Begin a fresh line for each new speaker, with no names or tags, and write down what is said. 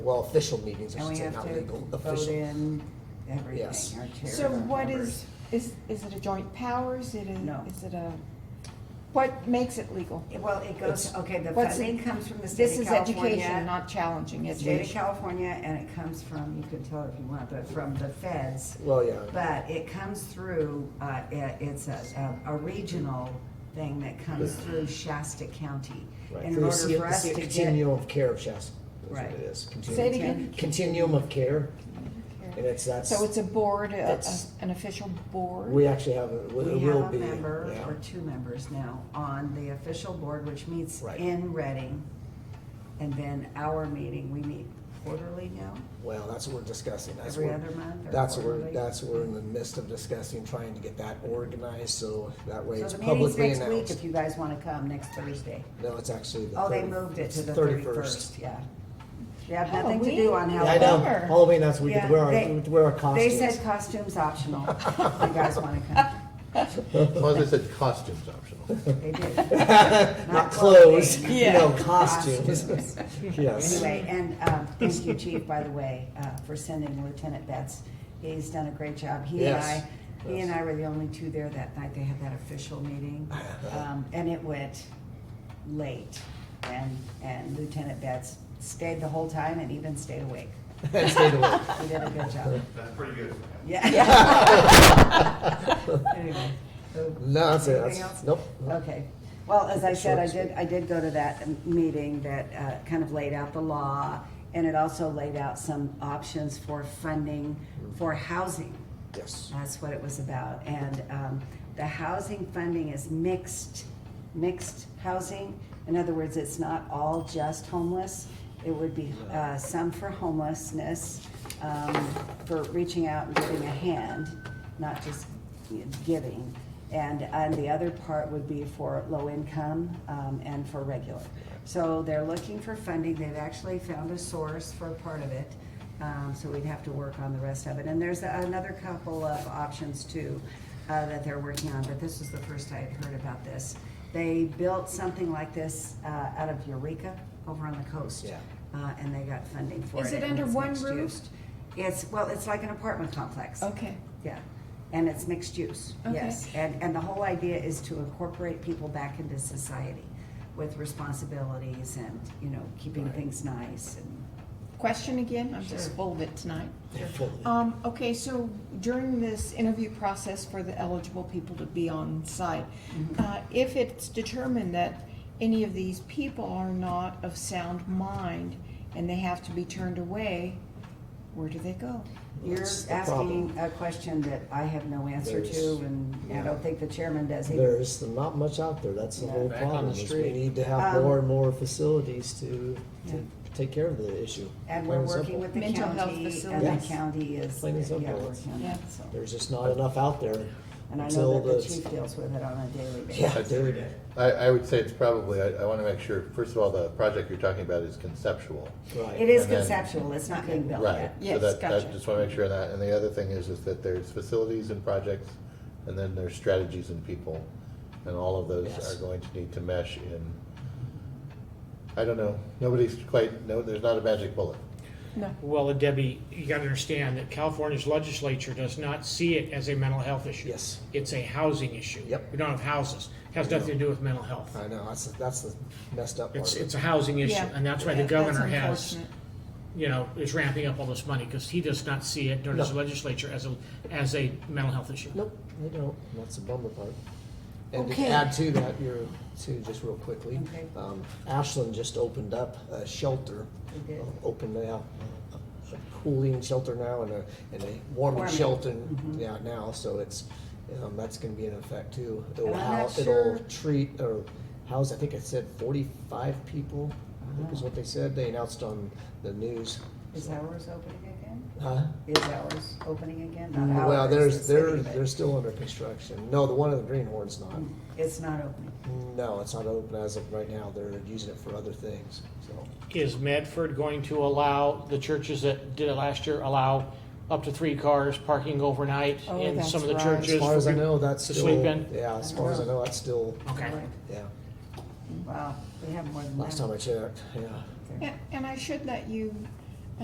well, official meetings, I
And
should
we
say,
have
not
to
legal,
vote
official.
in everything, our
Yes.
chair.
So
our
what
members.
is, is, is it a joint powers? It is,
No.
is it a, what makes it legal?
Well, it goes,
It's-
okay, the
What's-
funding comes from the
This
state of
is
California.
education, not challenging
State of
education.
California, and it comes from, you can tell if you want, but from the feds.
Well, yeah.
But it comes through, uh, it, it's a, a a regional thing that comes through Shasta County.
Right.
And
Through
in
the
order
C-
for us
the
to
C-
get,
Continuum of care of Shasta, is what
Right.
it is.
Say it
Continuum-
again.
Continuum of care, and it's, that's,
So it's a board, a- a,
That's-
an official board?
we actually have, a- it
we
will be.
have a member,
yeah.
or two members now, on the official board, which meets
Right.
in Reading. And then our meeting, we meet quarterly now,
Well, that's what we're discussing. That's
every
what-
other month or
That's what we're,
quarterly?
that's what we're in the midst of discussing, trying to get that organized, so that way
So
it's
the meeting's
publicly
next week,
announced.
if you guys wanna come, next Thursday.
No, it's actually the
Oh, they
thirty-
moved it to
it's
the thirty-first, yeah. They have nothing to do on
Halloween.
Yeah, I know,
Halloween.
Bummer.
Halloween, that's, we
Yeah,
could wear our,
they-
we'd wear our
They
costumes.
said costumes optional, if you guys wanna come,
As long as it said costumes optional.
they did.
Not clothes,
clothing.
you know, costumes. Yes.
Anyway, and, um, thank you, Chief, by the way, uh, for sending Lieutenant Betts, he's done a great job, he and I,
Yes,
he and
yes.
I were the only two there that night, they had that official meeting, um, and it went late, and, and Lieutenant Betts stayed the whole time and even stayed awake,
And stayed awake.
he did a good job.
That's pretty good.
Yeah. Anyway, so-
No, that's it, that's,
Anything else?
nope.
Okay, well, as I said, I
Short and
did, I did go to that um, meeting that uh, kind of laid out the law, and it also laid out some options for funding for housing.
Yes,
That's what it was about, and um, the housing funding is mixed, mixed housing. In other words, it's not all just homeless. It would be uh, some for homelessness, um, for reaching out and giving a hand, not just giving. And, and the other part would be for low income um, and for regular. So they're looking for funding. They've actually found a source for part of it. Um, so we'd have to work on the rest of it. And there's another couple of options too uh, that they're working on, but this is the first I had heard about this. They built something like this uh, out of Eureka over on the coast.
Yeah.
Uh, and they got funding for it.
Is it
and
under
it's
one
mixed
roof?
use. It's, well, it's like an apartment complex.
Okay.
Yeah, and it's mixed use,
Okay.
yes. And, and the whole idea is to incorporate people back into society with responsibilities and, you know, keeping things nice and.
Question again? I'm just
Sure.
full of it tonight.
Yeah, fully.
Um, okay, so during this interview process for the eligible people to be on site,
Mm-hmm.
uh, if it's determined that any of these people are not of sound mind and they have to be turned away, where do they go?
You're
That's the problem.
asking a question that I have no answer to
There's-
and I don't think the chairman does either.
There's not much out there, that's the
Yeah.
whole
Back on the
problem, is we
street.
need to have
Um,
more and more facilities to,
Yeah.
to take care of the issue. Plain
And we're
simple.
working with the
Mental health
county and the
facilities.
county is, yeah,
Plain and
we're
simple.
working on
Yeah.
that, so.
There's just not enough out there
And I know
until
that the
the.
chief deals with it on a daily basis.
Yeah, dude.
I, I would say it's probably, I, I want to make sure, first of all, the project you're talking about is conceptual.
Right.
It is
And then-
conceptual, it's not being built
Right.
yet.
So
Yes,
that,
gotcha.
I just want to make sure of that. And the other thing is, is that there's facilities and projects, and then there's strategies and people. And all of those
Yes.
are going to need to mesh in, I don't know, nobody's quite, no, there's not a magic bullet.
No.
Well, and Debbie, you gotta understand that California's legislature does not see it as a mental health issue.
Yes.
It's a housing issue.
Yep.
We don't have houses. It Has nothing to do with mental health.
I know, that's, the- that's the messed up part.
It's,
of it.
it's a housing issue,
Yeah.
and that's why the
That's
governor has,
unfortunate.
you know, is ramping up all this money, because he does not see it, nor does the
No.
legislature, as a, as a mental health issue.
Nope, they don't. That's the bummer part. And to
Okay.
add to that, you're, to just real quickly,
Okay.
um, Ashland just opened up a shelter. Uh,
They did.
Opened now, a cooling shelter now and a, and a warming
Warming.
shelter,
Mm-hmm.
yeah, now, so it's, um, that's gonna be in effect too. It'll
And I'm
hou-
not sure-
it'll treat, or house, I think it said forty-five people, I think is what they said. They announced on the news.
Is ours opening again?
Huh?
Is ours opening again? Not ours.
Well,
the
there's,
city,
they're,
but
they're still under construction. No, the one in the Greenhorn's not.
It's not opening.
No, it's not open as of right now. They're using it for other things, so.
Is Medford going to allow, the churches that did it last year, allow up to three cars parking overnight
Oh,
in some of the
that's right.
churches?
As far as I know, that's
to
still.
sleep in?
Yeah, as far as I know, that's still,
Okay.
yeah.
Wow, we have more than that.
Last time I checked, yeah.
Yeah, And I should let you